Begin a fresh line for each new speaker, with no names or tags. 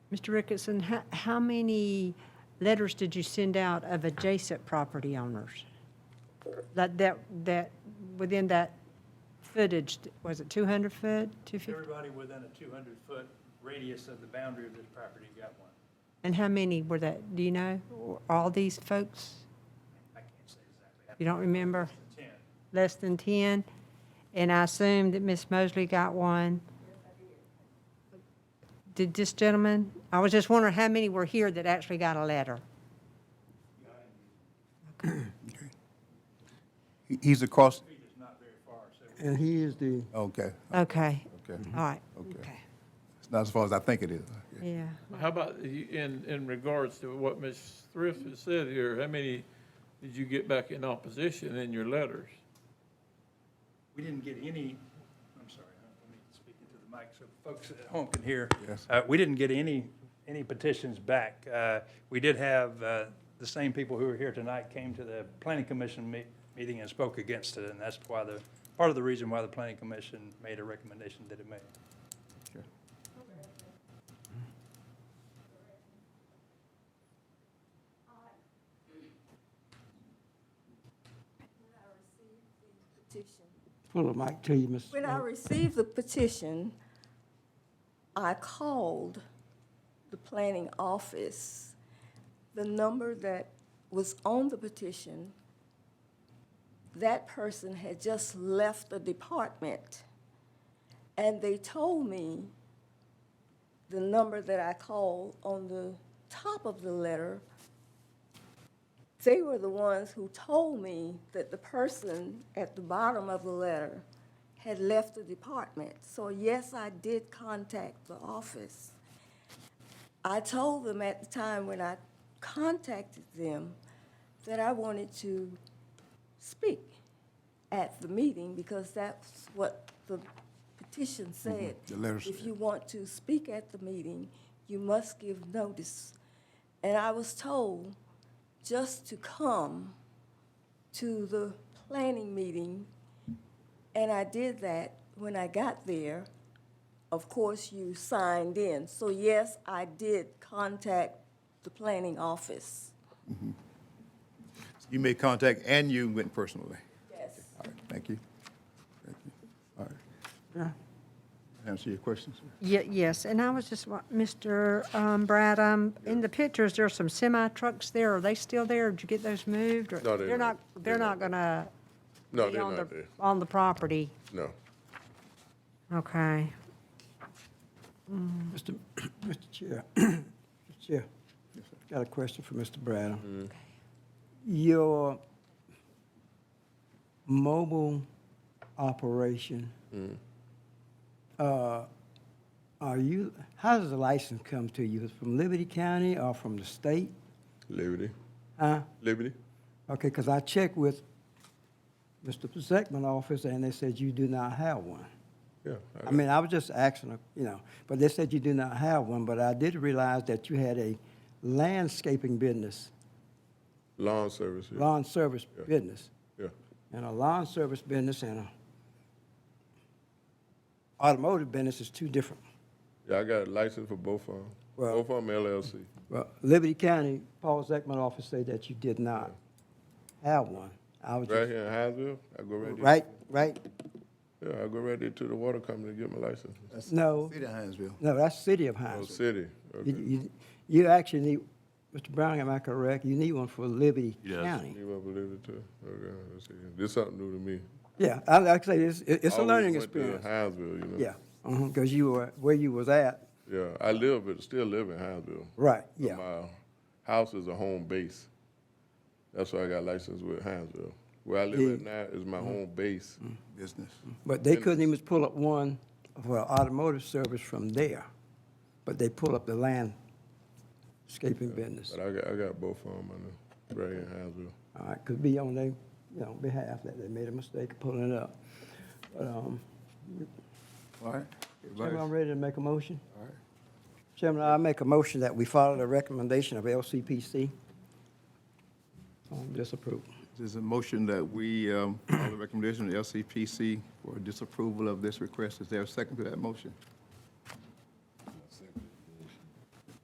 Mr. Ricketson, how, how many letters did you send out of adjacent property owners? That, that, that, within that footage, was it 200 foot, 250?
Everybody within a 200-foot radius of the boundary of this property got one.
And how many were that, do you know? Were All these folks?
I can't say exactly how
You don't remember?
many, 10.
Less than 10? And I assume that Ms. Mosley got one? Did this gentleman? I was just wondering how many were here that actually got a letter?
He- He's across,
And he is the,
okay,
Okay,
okay.
all right.
Okay. It's not as far as I think it is.
Yeah.
How about you- in, in regards to what Ms. Thrift has said here, how many did you get back in opposition in your letters?
We didn't get any, I'm sorry, let me speak into the mic so folks at home can hear.
Yes.
Uh, We didn't get any, any petitions back. Uh, We did have, uh, the same people who were here tonight came to the planning commission me- meeting and spoke against it, and that's why the, part of the reason why the planning commission made a recommendation that it made.
petition.
pull the mic to you, Ms.
When I received the petition, I called the planning office. The number that was on the petition, that person had just left the department. And they told me the number that I called on the top of the letter they were the ones who told me that the person at the bottom of the letter had left the department. So yes, I did contact the office. I told them at the time when I contacted them that I wanted to speak at the meeting because that's what the petition said.
Mm-hmm. the letter
If
said.
you want to speak at the meeting, you must give notice. And I was told just to come to the planning meeting, and I did that. When I got there, of course, you signed in. So yes, I did contact the planning office.
You made contact and you went personally.
Yes.
All right, thank you. Thank you. All right. Answer your questions.
Ye- Yes, and I was just, wa- Mr. um, Brad, um, in the pictures, there's some semi trucks there. Are they still there? Did you get those moved? or-
No, they're not.
They're
They're
not
not.
gonna
No,
be
they're
on
not
the,
there.
on the property?
No.
Okay.
Mr. Mr. Chair, Mr. Chair, got a question for Mr. Bradham. Your mobile operation, uh, are you, how does the license come to you? Is it From Liberty County or from the state?
Liberty.
Huh?
Liberty.
Okay, because I checked with Mr. Zeckman office, and they said you do not have one.
Yeah.
I mean, I was just asking, you know, but they said you do not have one, but I did realize that you had a landscaping business,
Lawn service. Yeah.
lawn service
Yeah.
business,
yeah.
and a lawn service business and a automotive business is two different.
Yeah, I got a license for both of them.
Well-
both of them LLC.
Well, Liberty County, Paul Zeckman office said that you did not have one. I was
Right
just,
here in Hinesville, I go right there.
right, right?
Yeah, I go right there to the water company to get my license.
No.
City of Hinesville.
No, that's city of
Oh,
Hinesville.
city.
You,
Okay.
you, you actually need, Mr. Brown, am I correct? You need one for Liberty
does.
County.
You want to believe it too? Okay. Let's see. This something new to me.
Yeah, I, like I say, it's, it- it's a
Always
learning
went to
experience.
Hinesville, you know.
Yeah, because you were, where you was at,
Yeah, I live, but still live in Hinesville.
right,
But
yeah.
My house is a home base. That's why I got licensed with Hinesville. Where I live at now is
Mm-hmm.
my home base.
Business.
But they couldn't even pull up one for automotive service from there, but they pull up the landscaping business.
But I got, I got both of them. I know. Right here in Hinesville.
All right, could be on their, you know, behalf that they made a mistake of pulling it up. But, um,
All right.
Chairman, I'm
Everybody's-
ready to make a motion. All right. Chairman, I make a motion that we follow the recommendation of LCPC on disapproval.
There's a motion that we, um, follow the recommendation of LCPC for disapproval of this request. Is there a second to that motion?